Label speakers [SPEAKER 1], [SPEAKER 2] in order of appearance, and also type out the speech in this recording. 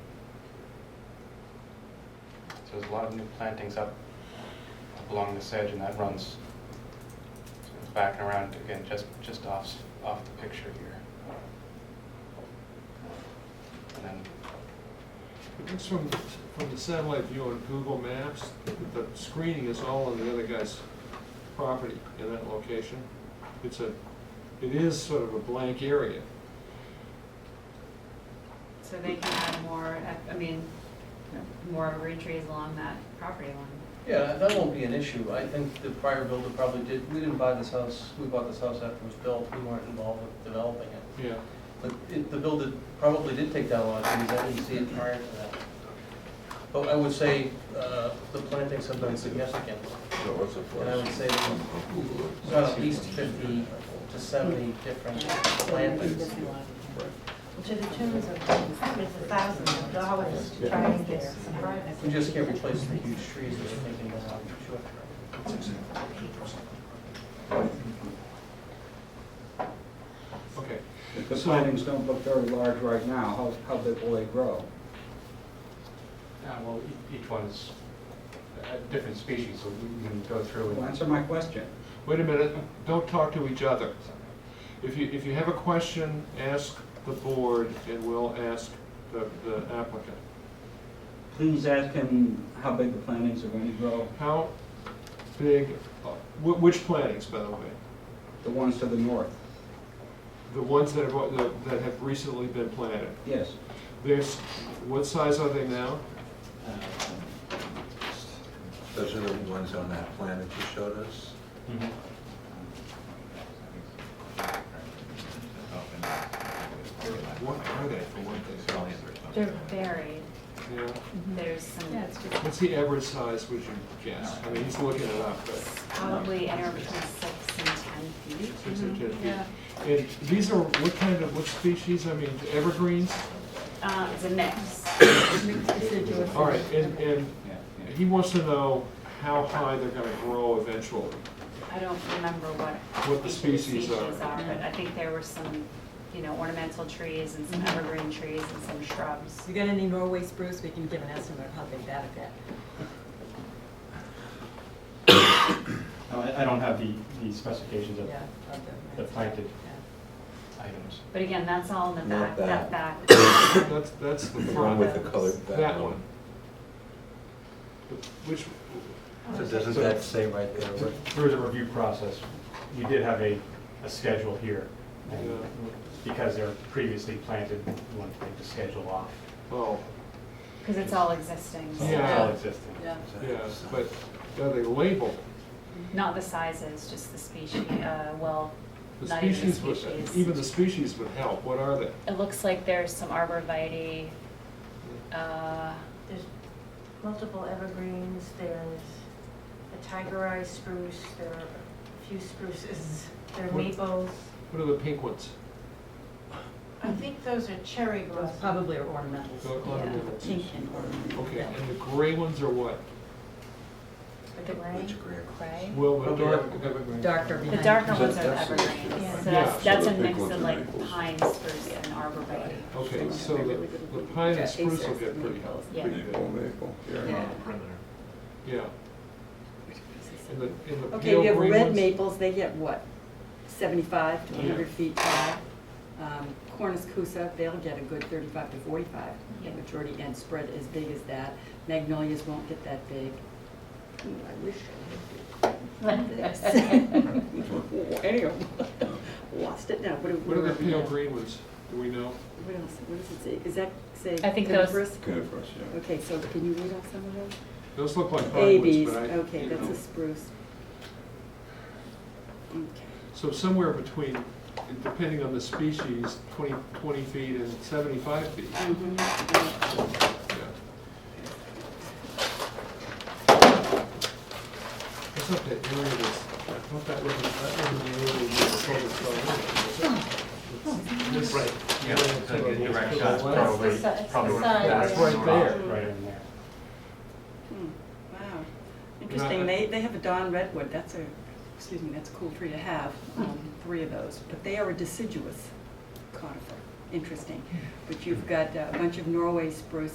[SPEAKER 1] So there's a lot of new plantings up up along this edge, and that runs so it's backing around again, just, just off, off the picture here. And then
[SPEAKER 2] It looks from, from the satellite view on Google Maps, that the screening is all on the other guy's property in that location. It's a, it is sort of a blank area.
[SPEAKER 3] So they can add more, I mean, more evergreen trees along that property line.
[SPEAKER 4] Yeah, that won't be an issue. I think the prior builder probably did, we didn't buy this house, we bought this house after it was built, we weren't involved with developing it.
[SPEAKER 2] Yeah.
[SPEAKER 4] But it, the builder probably did take down a lot of trees, I didn't see it prior to that. But I would say, uh, the plantings have been significant,
[SPEAKER 5] No, what's the
[SPEAKER 4] and I would
[SPEAKER 5] first?
[SPEAKER 4] say there's at least fifty to seventy different plantings.
[SPEAKER 6] Well, To the tunes of, it's a thousand of dollars to try and get some privacy.
[SPEAKER 4] We just can't replace the huge trees that are taking down, sure.
[SPEAKER 2] Okay,
[SPEAKER 7] If the plantings don't look very large right now, how, how big will they grow?
[SPEAKER 1] Uh, Well, e- each one's a different species, so we can go through
[SPEAKER 7] Well,
[SPEAKER 1] and...
[SPEAKER 7] Answer my question.
[SPEAKER 2] wait a minute, don't talk to each other. If you, if you have a question, ask the board and we'll ask the, the applicant.
[SPEAKER 7] Please ask him how big the plantings are going to grow,
[SPEAKER 2] How big, uh, wh- which plantings, by the way?
[SPEAKER 7] the ones to the north.
[SPEAKER 2] The ones that have, that have recently been planted?
[SPEAKER 7] Yes,
[SPEAKER 2] There's, what size are they now?
[SPEAKER 5] Those are the ones on that plan that you showed us.
[SPEAKER 2] Mm-hmm.
[SPEAKER 1] Mhm.
[SPEAKER 2] What are they, for one thing?
[SPEAKER 3] They're buried,
[SPEAKER 2] Yeah.
[SPEAKER 3] there's some,
[SPEAKER 6] Yeah, it's just-
[SPEAKER 2] What's the average size, would you guess? I mean, he's looking it up, but
[SPEAKER 3] probably anywhere between six and ten feet.
[SPEAKER 2] six or ten feet. And these are, what kind of, what species, I mean, evergreens?
[SPEAKER 3] Uh, it's a mix.
[SPEAKER 2] All right, and, and he wants to know how high they're gonna grow eventually.
[SPEAKER 3] I don't remember what.
[SPEAKER 2] What the
[SPEAKER 3] each of
[SPEAKER 2] species are.
[SPEAKER 3] but I think there were some, you know, ornamental trees and some evergreen trees and some shrubs.
[SPEAKER 8] You're gonna need Norway spruce, we can give an estimate of how big that would get.
[SPEAKER 9] No, I I don't have the the specifications of,
[SPEAKER 8] Yeah, of
[SPEAKER 9] The planted.
[SPEAKER 8] Yeah.
[SPEAKER 1] Items.
[SPEAKER 3] But again, that's all in the back,
[SPEAKER 5] Not
[SPEAKER 3] that back.
[SPEAKER 2] That's, that's the
[SPEAKER 5] The one
[SPEAKER 2] front,
[SPEAKER 5] with the colored
[SPEAKER 2] That
[SPEAKER 5] background.
[SPEAKER 2] one. which,
[SPEAKER 5] So doesn't that say right there? what-
[SPEAKER 9] through the review process, we did have a, a schedule here. and
[SPEAKER 2] Yeah.
[SPEAKER 9] Because they're previously planted, we wanted to take the schedule off.
[SPEAKER 2] oh,
[SPEAKER 3] Because it's all existing. so-
[SPEAKER 9] It's
[SPEAKER 2] Yeah.
[SPEAKER 9] all existing.
[SPEAKER 8] Yeah.
[SPEAKER 2] yeah, but are they labeled?
[SPEAKER 3] Not the sizes, just the species, uh, well,
[SPEAKER 2] The
[SPEAKER 3] not even the
[SPEAKER 2] species would, even
[SPEAKER 3] species.
[SPEAKER 2] the species would help, what are they?
[SPEAKER 3] It looks like there's some arborvitae, uh,
[SPEAKER 6] There's multiple evergreens, there's a tiger eye spruce, there are a few spruces, there are
[SPEAKER 2] What-
[SPEAKER 6] maples.
[SPEAKER 2] What are the pink ones?
[SPEAKER 6] I think those are cherry
[SPEAKER 8] Those
[SPEAKER 6] blossoms.
[SPEAKER 8] probably are ornamentals.
[SPEAKER 2] They're ornamentals.
[SPEAKER 8] Pink and ornamental.
[SPEAKER 2] Okay,
[SPEAKER 8] yeah.
[SPEAKER 2] and the gray ones are what?
[SPEAKER 6] The gray.
[SPEAKER 5] Which gray?
[SPEAKER 3] gray.
[SPEAKER 2] Well, the
[SPEAKER 4] Probably
[SPEAKER 2] dark,
[SPEAKER 4] evergreen.
[SPEAKER 8] Darker
[SPEAKER 3] The
[SPEAKER 8] behind.
[SPEAKER 3] darker
[SPEAKER 5] So
[SPEAKER 3] ones are the
[SPEAKER 5] that's the-
[SPEAKER 3] evergreens,
[SPEAKER 6] Yeah.
[SPEAKER 3] so
[SPEAKER 2] Yeah.
[SPEAKER 3] that's, that's
[SPEAKER 5] So
[SPEAKER 3] a
[SPEAKER 5] the big
[SPEAKER 3] mix
[SPEAKER 5] ones
[SPEAKER 3] of
[SPEAKER 5] are
[SPEAKER 3] like
[SPEAKER 5] maples.
[SPEAKER 3] pine spruce and arborvitae.
[SPEAKER 2] okay, so the, the pine and spruce will get pretty helpful.
[SPEAKER 3] Yeah.
[SPEAKER 5] Maple, maple, yeah.
[SPEAKER 2] Yeah. And the, and the
[SPEAKER 10] Okay,
[SPEAKER 2] pale
[SPEAKER 10] we have
[SPEAKER 2] green
[SPEAKER 10] red
[SPEAKER 2] ones?
[SPEAKER 10] maples, they get what, seventy-five to
[SPEAKER 2] Yeah.
[SPEAKER 10] hundred feet tall. Um, Cornus cusa, they'll get a good thirty-five to forty-five,
[SPEAKER 3] Yeah.
[SPEAKER 10] the majority, and spread as big as that. Magnolias won't get that big. Ooh, I wish I had big plants. Anyhow, lost it now, what do,
[SPEAKER 2] What are the
[SPEAKER 10] where-
[SPEAKER 2] pale green ones? Do we know?
[SPEAKER 10] What else, what does it say, is that say
[SPEAKER 3] I think those-
[SPEAKER 10] coniferous?
[SPEAKER 5] Coniferous, yeah.
[SPEAKER 10] Okay, so can you read off some of those?
[SPEAKER 2] Those look like hardwoods,
[SPEAKER 10] ABs,
[SPEAKER 2] but I,
[SPEAKER 10] okay,
[SPEAKER 2] you
[SPEAKER 10] that's
[SPEAKER 2] know.
[SPEAKER 10] a spruce. Okay.
[SPEAKER 2] So somewhere between, depending on the species, 20 20 feet and seventy-five feet.
[SPEAKER 10] Mhm.
[SPEAKER 2] Yeah. What's up that area that's, I thought that was, that was the area we were focused on. Right,
[SPEAKER 1] Yeah, it's like a direct shot,
[SPEAKER 2] That's
[SPEAKER 1] probably,
[SPEAKER 6] the si- it's the
[SPEAKER 1] probably
[SPEAKER 6] size,
[SPEAKER 1] that's
[SPEAKER 2] yeah.
[SPEAKER 1] right
[SPEAKER 9] Right,
[SPEAKER 1] there.
[SPEAKER 9] Right in there.
[SPEAKER 10] Hmm, Wow, interesting, they, they have a Don redwood, that's a, excuse me, that's a cool tree to have, um,
[SPEAKER 2] Hmm.
[SPEAKER 10] three of those, but they are a deciduous conifer, interesting. But you've got uh, a bunch of Norway spruce